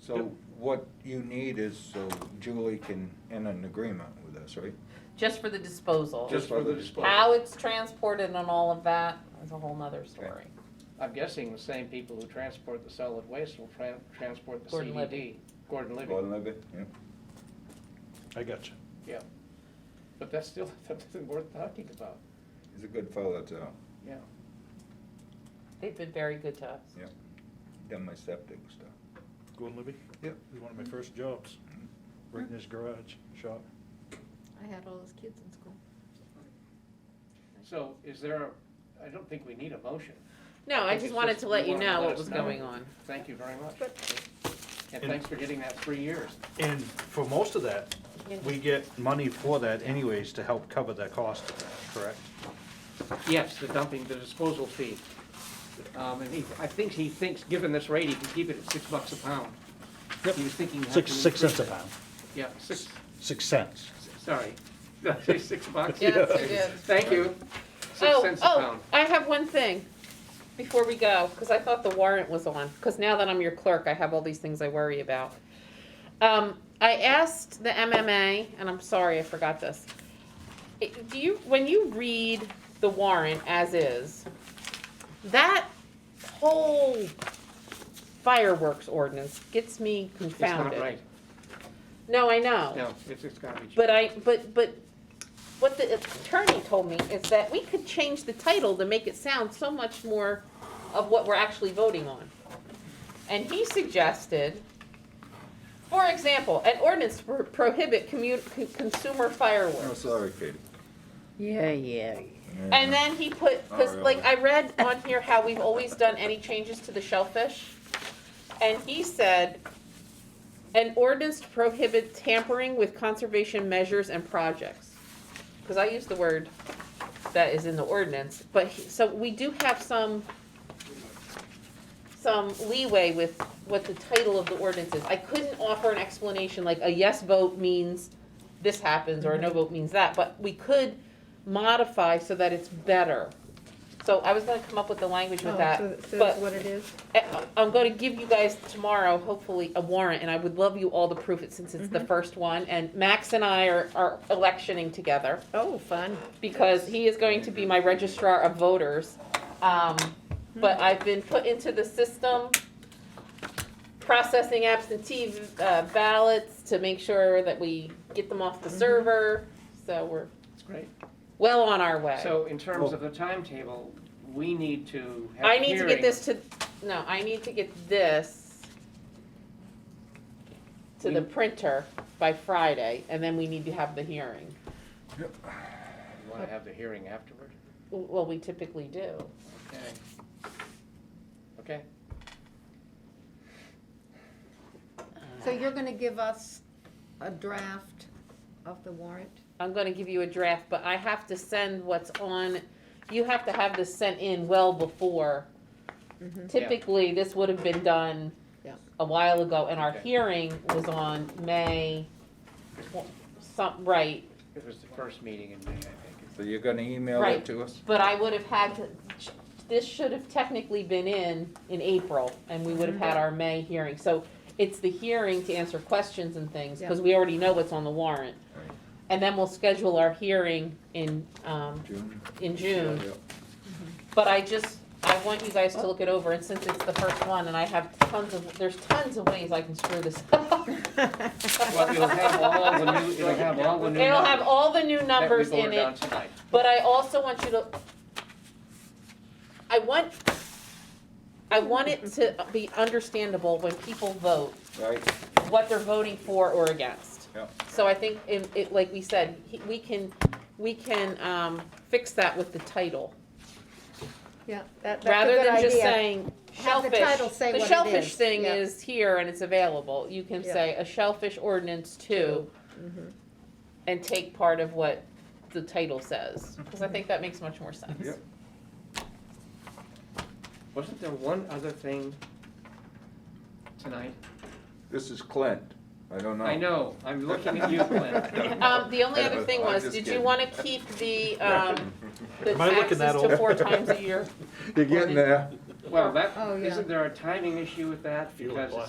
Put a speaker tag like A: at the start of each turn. A: So what you need is so Julie can end an agreement with us, right?
B: just for the disposal.
A: Just for the display.
B: How it's transported and all of that is a whole nother story.
C: I'm guessing the same people who transport the solid waste will tran- transport the
B: Gordon
C: CDD. Gordon Libby.
A: Gordon Levitt, yeah.
D: I got you.
C: yeah. But that's still something worth talking about,
A: He's a good fellow, too.
C: yeah.
B: They've been very good to us.
A: Yeah. Done my septic stuff.
D: Gordon Libby?
A: Yep.
D: It was one of my first jobs, renting his garage shop.
E: I had all those kids in school.
C: So is there, a- I don't think we need a motion.
B: No, I
C: It's
B: just wanted to let you
C: wanna
B: know
C: let
B: what
C: us
B: was
C: know.
B: going on.
C: Thank you very much.
E: But-
C: And
D: And-
C: thanks for getting that three years.
D: And for most of that, we get money for that anyways to help cover the cost of that, correct?
C: Yes, the dumping, the disposal fee. Um, and he, I think he thinks, given this rate, he can keep it at six bucks a pound.
D: Yep.
C: He was thinking. how
D: Six,
C: can we
D: six cents a
C: increase it?
D: pound,
C: Yeah, six,
D: six cents.
C: sorry. Did I say six bucks?
B: Yes, you did.
C: Thank you. Six
B: Oh,
C: cents a
B: oh,
C: pound.
B: I have one thing before we go, because I thought the warrant was on, because now that I'm your clerk, I have all these things I worry about. Um, I asked the MMA, and I'm sorry, I forgot this. It- Do you, when you read the warrant as is, that whole fireworks ordinance gets me
C: It's not
B: confounded.
C: right.
B: No, I know.
C: No, it's, it's gotta be. changed.
B: But I, but, but what the attorney told me is that we could change the title to make it sound so much more of what we're actually voting on. And he suggested, for example, an ordinance pro- prohibit commu- con- consumer
A: Oh,
B: fireworks.
A: sorry, Katie.
E: Yeah, yeah.
B: And then he put, because like I read on here how we've always done any changes to the shellfish. And he said, an ordinance to prohibit tampering with conservation measures and projects. Because I use the word that is in the ordinance, but he- so we do have some, some leeway with what the title of the ordinance is. I couldn't offer an explanation like a yes vote means this happens or a no vote means that, but we could modify so that it's better. So I was gonna come up with the language with that,
E: Oh,
B: but.
E: So that's what it is?
B: I- I'm gonna give you guys tomorrow, hopefully, a warrant, and I would love you all to proof it since it's the first one, and Max and I are, are electioning together,
E: Oh, fun.
B: because he is going to be my registrar of voters. Um, but I've been put into the system, processing absentee uh, ballots to make sure that we get them off
C: Mm-hmm.
B: the server, so we're
C: It's great.
B: well on our way.
C: So in terms of the timetable, we need to have a
B: I need to get
C: hearing.
B: this to, no, I need to get this to the
C: We-
B: printer by Friday, and then we need to have the hearing.
C: You wanna have the hearing afterward?
B: W- Well, we typically do.
C: Okay. Okay,
E: So you're gonna give us a draft of the warrant?
B: I'm gonna give you a draft, but I have to send what's on, you have to have this sent in well before. Typically, this would have been done
E: Yeah.
B: a while ago, and our
C: Okay.
B: hearing was on May, tw- some, right,
C: it was the first meeting in May, I think.
A: So you're gonna email
B: Right.
A: it to us?
B: But I would have had to, this should have technically been in, in April, and we would have had our May hearing. So it's the hearing to answer questions and things, because we already know what's on the warrant.
A: Right.
B: And then we'll schedule our hearing in, um,
A: June?
B: in June.
A: Yeah.
B: But I just, I want you guys to look it over, and since it's the first one, and I have tons of, there's tons of ways I can screw this up.
C: Well, it'll have all the new, it'll have all the new numbers.
B: It'll have all the new numbers
C: That we
B: in
C: voted on
B: it,
C: tonight.
B: But I also want you to, I want, I want it to be understandable when people vote,
A: Right,
B: what they're voting for or against.
A: yeah.
B: So I think, in- it, like we said, he- we can, we can, um, fix that with the title.
E: Yeah, that, that's a good idea.
B: Rather than just saying
E: Have the
B: shellfish.
E: title say what it
B: The shellfish
E: is,
B: thing
E: yeah.
B: is here and it's available. You can
E: Yeah.
B: say a shellfish ordinance too, and take part of what the title says, because I think that makes much more sense.
A: Yep.
C: Wasn't there one other thing tonight?
A: This is Clint. I don't know.
C: I know, I'm looking at you, Clint.
B: Um, the only other thing
A: I'm
B: was,
A: just
B: did you
A: kidding.
B: wanna keep the, um, the
D: Am I looking
B: taxes
D: that
B: to
D: old?
B: four times a year?
A: You're getting there.
C: Well, that,
E: Oh, yeah.
C: isn't there a timing issue with that?
D: Fuel
C: Because
D: cost.